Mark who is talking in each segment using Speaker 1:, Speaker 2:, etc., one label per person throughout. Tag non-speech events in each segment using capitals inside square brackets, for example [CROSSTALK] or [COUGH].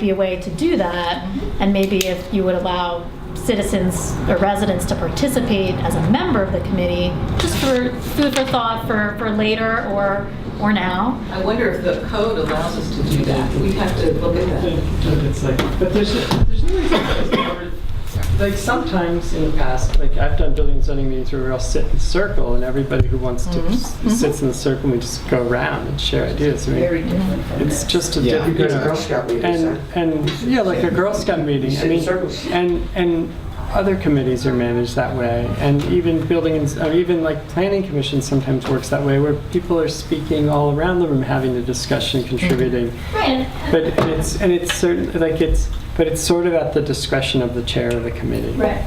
Speaker 1: be a way to do that, and maybe if you would allow citizens or residents to participate as a member of the committee, just for food for thought for, for later or, or now.
Speaker 2: I wonder if the code allows us to do that. We'd have to look at that.
Speaker 3: It's like, but there's, there's no reason that it's never- like sometimes in the past, like I've done building and zoning meetings where we all sit in a circle and everybody who wants to s- sits in the circle and we just go around and share ideas. I mean,
Speaker 2: Very different from
Speaker 3: it's
Speaker 2: this.
Speaker 3: just a
Speaker 4: Yeah, you
Speaker 3: different.
Speaker 4: go to Girl Scout meetings.
Speaker 3: And, and, yeah, like a Girl Scout meeting, I
Speaker 4: sit in
Speaker 3: mean,
Speaker 4: circles.
Speaker 3: and, and other committees are managed that way, and even building, and- or even like planning commission sometimes works that way, where people are speaking all around the room, having a discussion, contributing.
Speaker 1: Right.
Speaker 3: But it's, and it's certain, like it's, but it's sort of at the discretion of the chair of the committee.
Speaker 1: Right.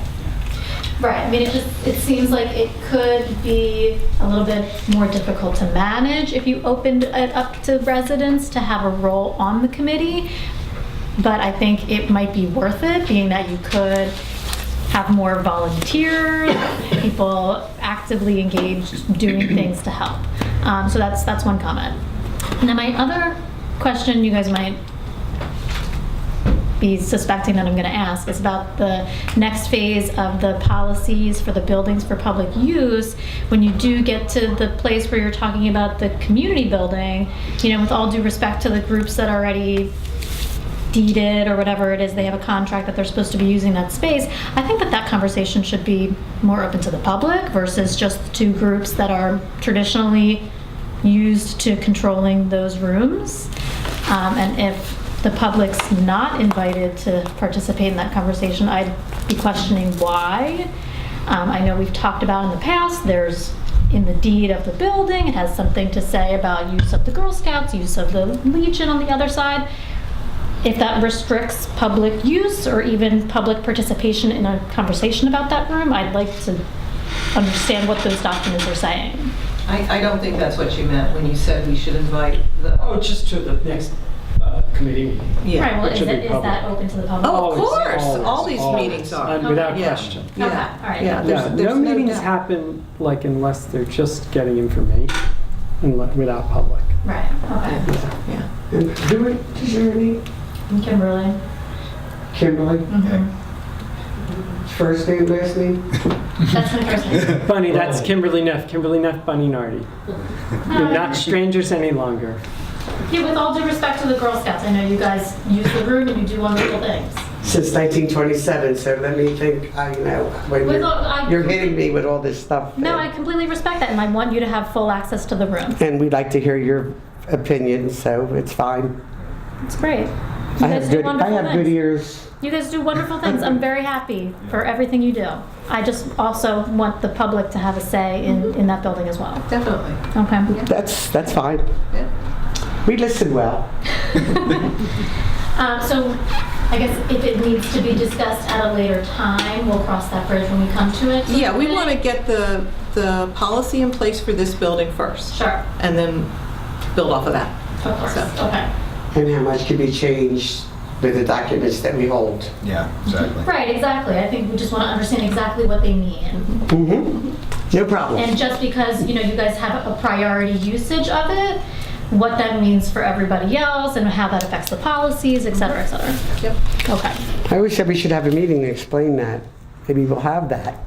Speaker 1: Right, I mean, it just, it seems like it could be a little bit more difficult to manage if you opened it up to residents to have a role on the committee. But I think it might be worth it, being that you could have more volunteers, people actively engaged, doing things to help. Um, so that's, that's one comment. And then my other question you guys might be suspecting that I'm going to ask is about the next phase of the policies for the buildings for public use. When you do get to the place where you're talking about the community building, you know, with all due respect to the groups that already deeded or whatever it is, they have a contract that they're supposed to be using that space. I think that that conversation should be more open to the public versus just the two groups that are traditionally used to controlling those rooms. Um, and if the public's not invited to participate in that conversation, I'd be questioning why. Um, I know we've talked about in the past, there's in the deed of the building, it has something to say about use of the Girl Scouts, use of the Legion on the other side if that restricts public use or even public participation in a conversation about that room, I'd like to understand what those documents are saying.
Speaker 2: I, I don't think that's what you meant when you said we should invite the.
Speaker 3: Oh, just to the next uh, committee meeting.
Speaker 1: Right, well,
Speaker 3: Which
Speaker 1: is
Speaker 3: would
Speaker 1: it-
Speaker 3: be
Speaker 1: is that
Speaker 3: public.
Speaker 1: open to the public?
Speaker 2: Oh, of
Speaker 3: Always,
Speaker 2: course.
Speaker 3: always,
Speaker 2: All these
Speaker 3: always.
Speaker 2: meetings are.
Speaker 3: And Without
Speaker 2: Yeah.
Speaker 3: question.
Speaker 1: Okay,
Speaker 2: Yeah.
Speaker 1: all right.
Speaker 2: Yeah, there's-
Speaker 3: Yeah,
Speaker 2: there's
Speaker 3: no meetings
Speaker 2: doubt.
Speaker 3: happen, like unless they're just getting information, unle- without public.
Speaker 1: Right, okay.
Speaker 2: Yeah.
Speaker 4: And Do we, is there any,
Speaker 1: Kimberly?
Speaker 4: Kimberly,
Speaker 1: Mhm.
Speaker 4: first name, last name?
Speaker 1: [LAUGHS] That's my first
Speaker 4: [LAUGHS]
Speaker 1: name.
Speaker 3: Bunny, that's Kimberly Neff, Kimberly Neff, Bunny Nardi. You're not strangers any longer.
Speaker 1: Um, Yeah, with all due respect to the Girl Scouts, I know you guys use the room and you do wonderful things.
Speaker 4: Since 1927, so let me think, I know, when
Speaker 1: With all- I-
Speaker 4: you're, you're hitting me with all this stuff.
Speaker 1: No, I
Speaker 4: and-
Speaker 1: completely respect that and I want you to have full access to the room.
Speaker 4: And we'd like to hear your opinion, so it's fine.
Speaker 1: It's great.
Speaker 4: I have good, I have good ears.
Speaker 1: You guys do wonderful things. I'm very happy for everything you do. I just also want the public to have a say in, in that building as well.
Speaker 2: Definitely.
Speaker 1: Okay.
Speaker 4: That's, that's fine.
Speaker 2: Yeah.
Speaker 4: We listen well.
Speaker 1: Um, so I guess if it needs to be discussed at a later time, we'll cross that bridge when we come to it.
Speaker 2: Yeah, we want to get the, the policy in place for this building first
Speaker 1: Sure,
Speaker 2: and then build off of that.
Speaker 1: of course.
Speaker 2: So-
Speaker 1: Okay.
Speaker 4: And how much can be changed with the documents that we hold?
Speaker 5: Yeah, exactly.
Speaker 1: Right, exactly. I think we just want to understand exactly what they mean.
Speaker 4: Mm-hmm. No problem.
Speaker 1: And just because, you know, you guys have a priority usage of it, what that means for everybody else and how that affects the policies, et cetera, et cetera.
Speaker 2: Yep.
Speaker 1: Okay.
Speaker 4: I always said we should have a meeting to explain that. Maybe we'll have that.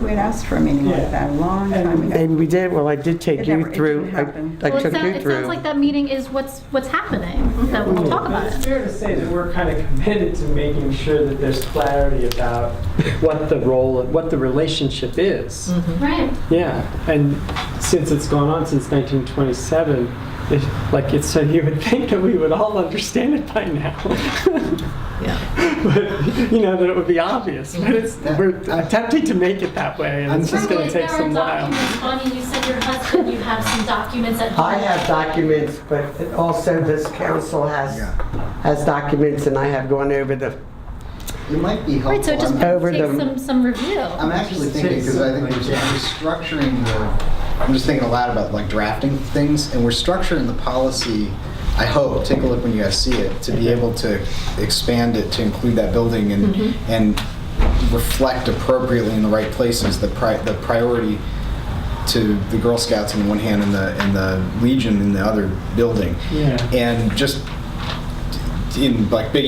Speaker 6: We had asked for a meeting like that a long time ago.
Speaker 4: Maybe we did, well, I did take
Speaker 6: It
Speaker 4: you
Speaker 6: never- it
Speaker 4: through,
Speaker 6: didn't
Speaker 4: I
Speaker 6: happen.
Speaker 4: I
Speaker 1: Well, it
Speaker 4: took
Speaker 1: sounds,
Speaker 4: you
Speaker 1: it sounds like
Speaker 4: through.
Speaker 1: that meeting is what's, what's happening, that we'll talk about
Speaker 3: It's
Speaker 1: it.
Speaker 3: fair to say that we're kind of committed to making sure that there's clarity about what the role, what the relationship is.
Speaker 1: Right.
Speaker 3: Yeah, and since it's gone on since 1927, it, like it's so you would [LAUGHS] think that we would all understand it by now.
Speaker 2: Yeah.
Speaker 3: [LAUGHS] but you know that it would be obvious. But it's we're attempting to make it that way, and it's just going to take some while.
Speaker 1: Bonnie, you said your husband, you have some documents at home.
Speaker 4: I have documents, but it also this council has,
Speaker 5: Yeah.
Speaker 4: has documents, and I have gone over the,
Speaker 5: It might be helpful.
Speaker 1: Right, so it just
Speaker 5: I'm-
Speaker 4: Over
Speaker 1: takes
Speaker 4: the-
Speaker 1: some, some review.
Speaker 5: I'm actually thinking, because I think we're we're structuring the, I'm just thinking a lot about like drafting things, and we're structuring the policy, I hope, take a look when you guys see it, to be
Speaker 1: Mm-hmm.
Speaker 5: able to expand it to include that building and,
Speaker 1: Mm-hmm.
Speaker 5: and reflect appropriately in the right places, the pri, the priority to the Girl Scouts on one hand and the, and the Legion in the other building.
Speaker 3: Yeah.
Speaker 5: And just in like big